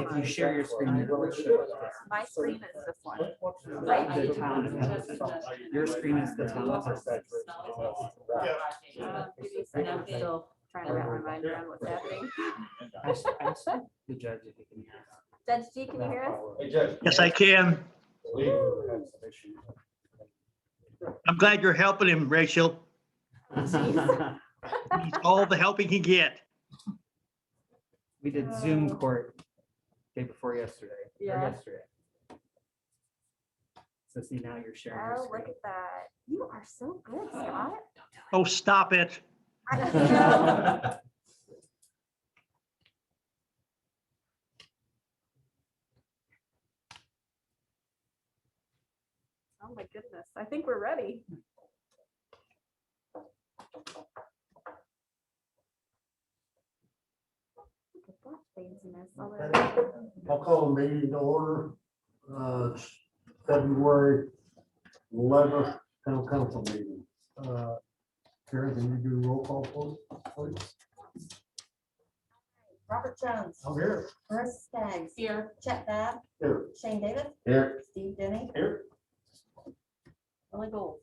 If you share your screen, you will show. My screen is this one. The town of Halifax. Your screen is the town of Halifax. uh, I'm still trying to wrap my mind around what's happening. Ask- ask The judge if he can hear. Judge G, can you hear us? Hey, Judge. Yes, I can. I'm glad you're helping him, Rachel. Jeez. He's All the help he can get. We did Zoom court day before yesterday, or Um, Yeah. yesterday. So see, now you're sharing your Oh, look screen. at that. You are so good, Scott. Oh, stop it. I know. Oh, my goodness. I think we're ready. Look at that fanciness all over. I'll call the meeting to order, uh, it's February eleventh, town council meeting. Uh, Karen, can you do roll call, please? Robert Jones, I'm here. Marissa Staggs. Here. Chet Bab, Here. Shane Davis, Here. Steve Denny, Here. Billy Gold.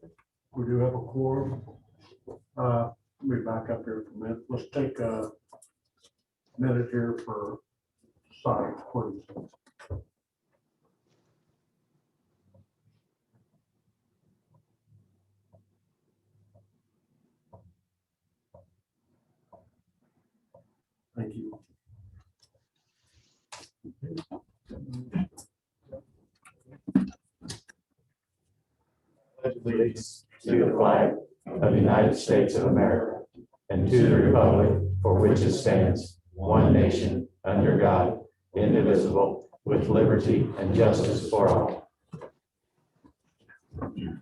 We do have a quorum. Uh, let me back up here for a minute. Let's take a minute here for signs, please. Thank you. allegiance to the flag of the United States of America and to the republic for which it stands, one nation, under God, indivisible, with liberty and justice for all. I'm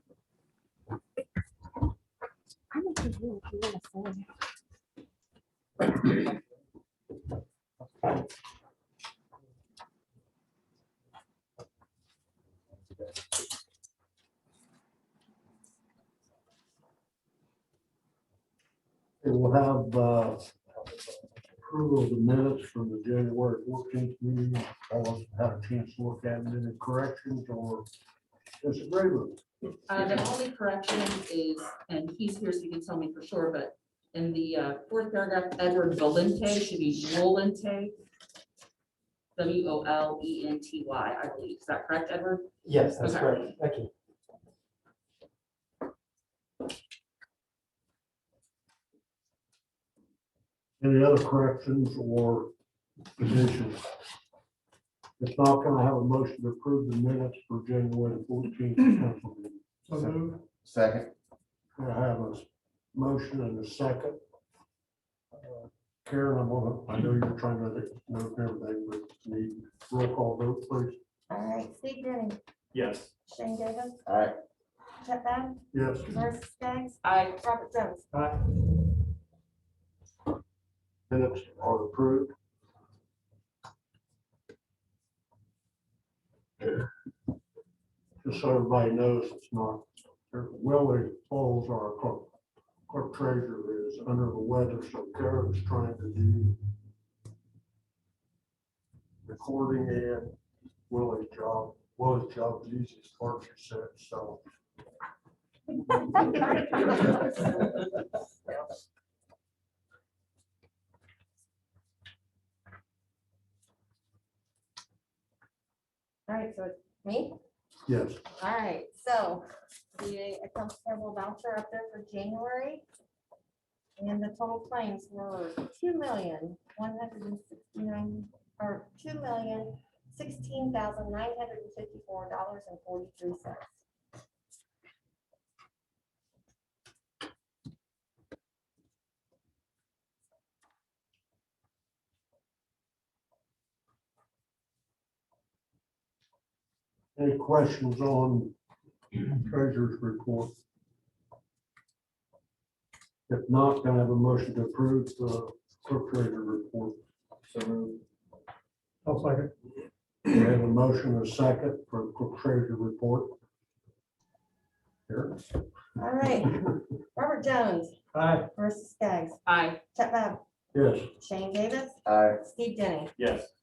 a good one, if you wanna say it. It will have uh, approval of the minutes from the January fourteenth meeting. All of us had a chance to look at it. Any corrections or disagreements? Uh, the only correction is, and he's here, so he can tell me for sure, but in the uh, fourth paragraph, Edward Volente should be Volente. W O L E N T Y, I believe. Is that correct, Edward? Yes, that's Okay. correct. Thank you. Any other corrections or additions? If not, can I have a motion to approve the minutes for January fourteenth council meeting? Second. Can I have a motion and a second? Uh, Karen, I'm gonna, I know you're trying to know everything, but need roll call vote, please. All right, Steve Denny, Yes. Shane Davis, All right. Chet Bab, Yes. Marissa Staggs, I, Robert Jones. Minutes are approved. Just so everybody knows, it's not, Willie Falls, our clerk, clerk treasurer is under the weather, so Karen's trying to do recording and Willie's job, Willie's job is easiest part she said, so. All right, so it's me. Yes, All right, so the accounts payable voucher up there for January. And the total claims were two million, one hundred and sixty-nine, or two million, sixteen thousand, nine hundred and fifty-four dollars and forty-three cents. any questions on treasurer's report? If not, can I have a motion to approve the clerk treasurer report? I'll second. We have a motion and a second for clerk treasurer report. Here. All right, Robert Jones, Marissa Skaggs, I, Chet Bab, Yes. Shane Davis, All right. Steve Denny. Yes.